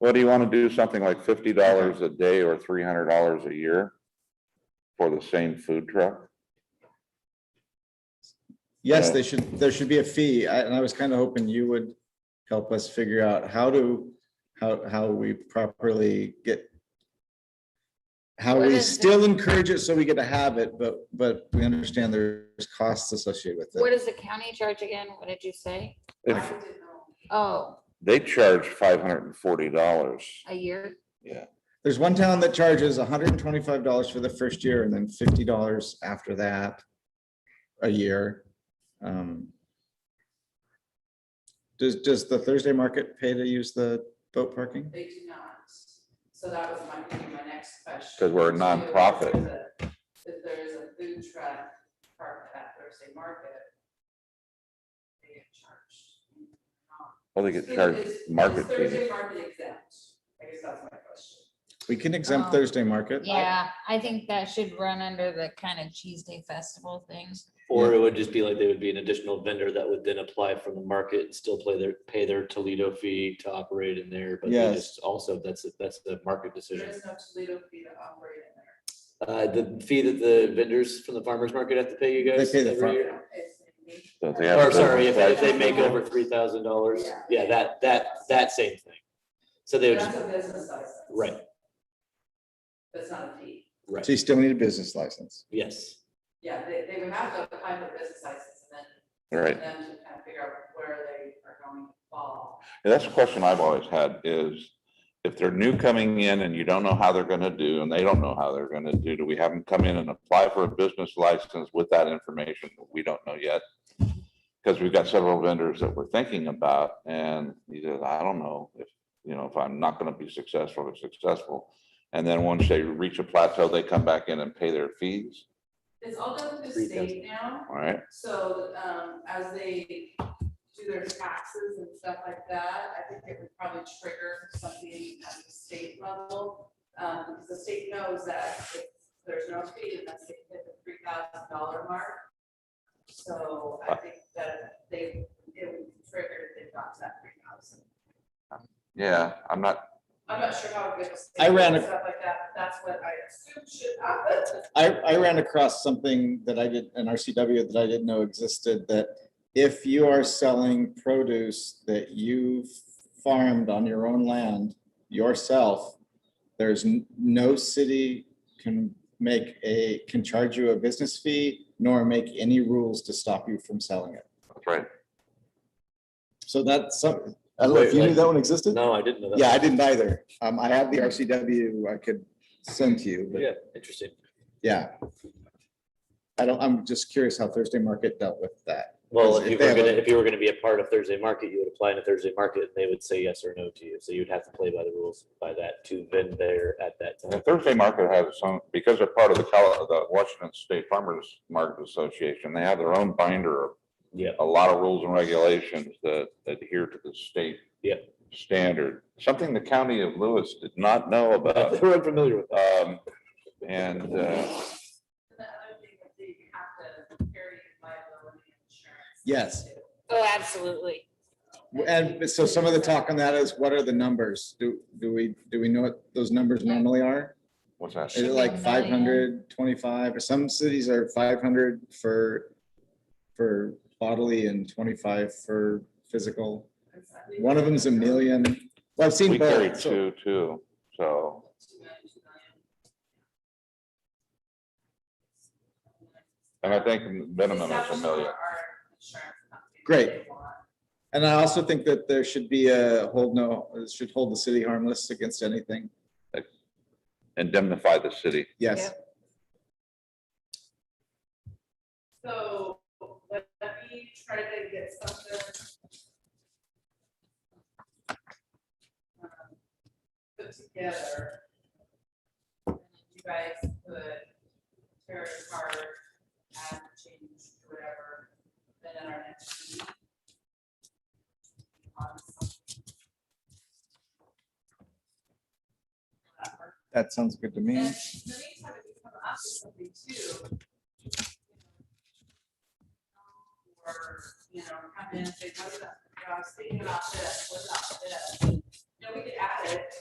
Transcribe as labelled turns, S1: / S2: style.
S1: Well, do you want to do something like fifty dollars a day or three hundred dollars a year? For the same food truck?
S2: Yes,
S1: Yeah.
S2: they should, there should be a fee. I- And I was kind of hoping you would help us figure out how to, how, how we properly get, how
S3: What
S2: we
S3: is-
S2: still encourage it so we get a habit, but, but we understand there's costs associated with
S3: What
S2: it.
S3: does the county charge again? What did you say?
S1: If
S3: Oh,
S1: they charge five hundred and forty dollars.
S3: a year?
S2: There's one town that charges hundred and twenty-five dollars for the first year and then fifty dollars after that a year. Um, Does, does the Thursday market pay to use the boat parking?
S4: They do not. So that was my, gonna be my next question.
S1: 'Cause we're a
S4: too,
S1: nonprofit.
S4: is that If there is a food truck parked at Thursday Market, they get charged.
S1: Well, they get
S4: Is-
S1: charged
S4: is-
S1: market
S4: Is Thursday
S1: fees.
S4: Market exempt? I guess that's my question.
S2: We can exempt
S3: Um,
S2: Thursday market.
S3: Yeah, I think that should run under the kind of Cheese Day Festival thing.
S5: Or it would just be like they would be an additional vendor that would then apply from the market and still play their, pay their Toledo fee to operate in there. But they
S2: Yes.
S5: just also, that's, that's the market
S4: There
S5: decision.
S4: is no Toledo fee to operate in there.
S5: Uh, the fee that the vendors from the farmer's market have to pay you
S2: They
S5: guys
S2: pay the
S5: every
S2: farm-
S5: year?
S4: It's- it's-
S1: Don't they have
S5: Or
S1: a
S5: sorry, if
S1: business
S5: if they
S1: license?
S5: make over three thousand dollars, yeah, that, that, that same thing. So they would,
S4: That's a business license.
S5: right,
S4: That's not a fee.
S5: right,
S2: So you still need a business license.
S5: yes.
S4: Yeah, they, they would have to apply for a business license and then
S1: Right,
S4: them to kind of figure out where they are going to fall.
S1: And that's a question I've always had is, if they're new coming in and you don't know how they're gonna do, and they don't know how they're gonna do, do we have them come in and apply for a business license with that information that we don't know yet? Because we've got several vendors that we're thinking about, and he says, I don't know if, you know, if I'm not gonna be successful or successful. And then once they reach a plateau, they come back in and pay their fees,
S4: It's all done through the
S5: Three
S4: state now,
S1: all right?
S4: so, um, as they do their taxes and stuff like that, I think it would probably trigger something at the state level. Um, because the state knows that if there's no fee, unless they hit the three thousand dollar mark. So I think that they, it would trigger if they got to that three thousand.
S1: Yeah, I'm not,
S4: I'm not sure how good.
S2: I ran a-
S4: Stuff like that, but that's what I assume should happen.
S2: I, I ran across something that I did, an RCW that I didn't know existed, that if you are selling produce that you farmed on your own land yourself, there's n- no city can make a, can charge you a business fee nor make any rules to stop you from selling it.
S1: that's right.
S2: So that's, some- I don't know if you knew that one existed?
S5: No, I didn't know that.
S2: Yeah, I didn't either. Um, I have the RCW I could send to you, but
S5: Yeah, interesting.
S2: Yeah. I don't, I'm just curious how Thursday market dealt with that.
S5: Well,
S2: Because
S5: if
S2: if
S5: you
S2: they
S5: were
S2: have a-
S5: gonna, if you were gonna be a part of Thursday Market, you would apply in a Thursday Market, and they would say yes or no to you, so you'd have to play by the rules by that to been there at that
S1: The
S5: time.
S1: Thursday market has its own, because they're part of the Col- the Washington State Farmers Market Association, they have their own binder of
S5: Yeah,
S1: a lot of rules and regulations that adhere to the state.
S5: Yep.
S1: Standard, something the county of Lewis did not know about.
S5: we're unfamiliar with that.
S1: Um, and, uh,
S4: And the other thing is that you have to carry liability insurance.
S2: Yes.
S4: too.
S3: Oh, absolutely.
S2: And so some of the talk on that is what are the numbers? Do, do we, do we know what those numbers normally are?
S1: what's that?
S2: Is it like five hundred twenty-five or some cities are five hundred for, for bodily and twenty-five for physical?
S4: It's not- we-
S2: One of them's a million. Well, I've seen
S1: We carry
S2: both. so-
S1: two, too, so,
S4: Two million, two million.
S1: and I think minimum is a
S4: Establishment
S1: million.
S4: or our insurance company that
S2: Great.
S4: they want.
S2: And I also think that there should be a hold no, should hold the city harmless against anything.
S1: Indemnify the city.
S2: Yes.
S4: So let let me try to get something. um, Put together. and then You guys could tear it apart, add, change, whatever, then at our next meeting. on something. Whatever.
S2: That sounds good to
S4: And in
S2: me.
S4: the meantime, if you come up with something too. Or, you know, come in and say, what about, I was thinking about this, what about this? No, we could add it.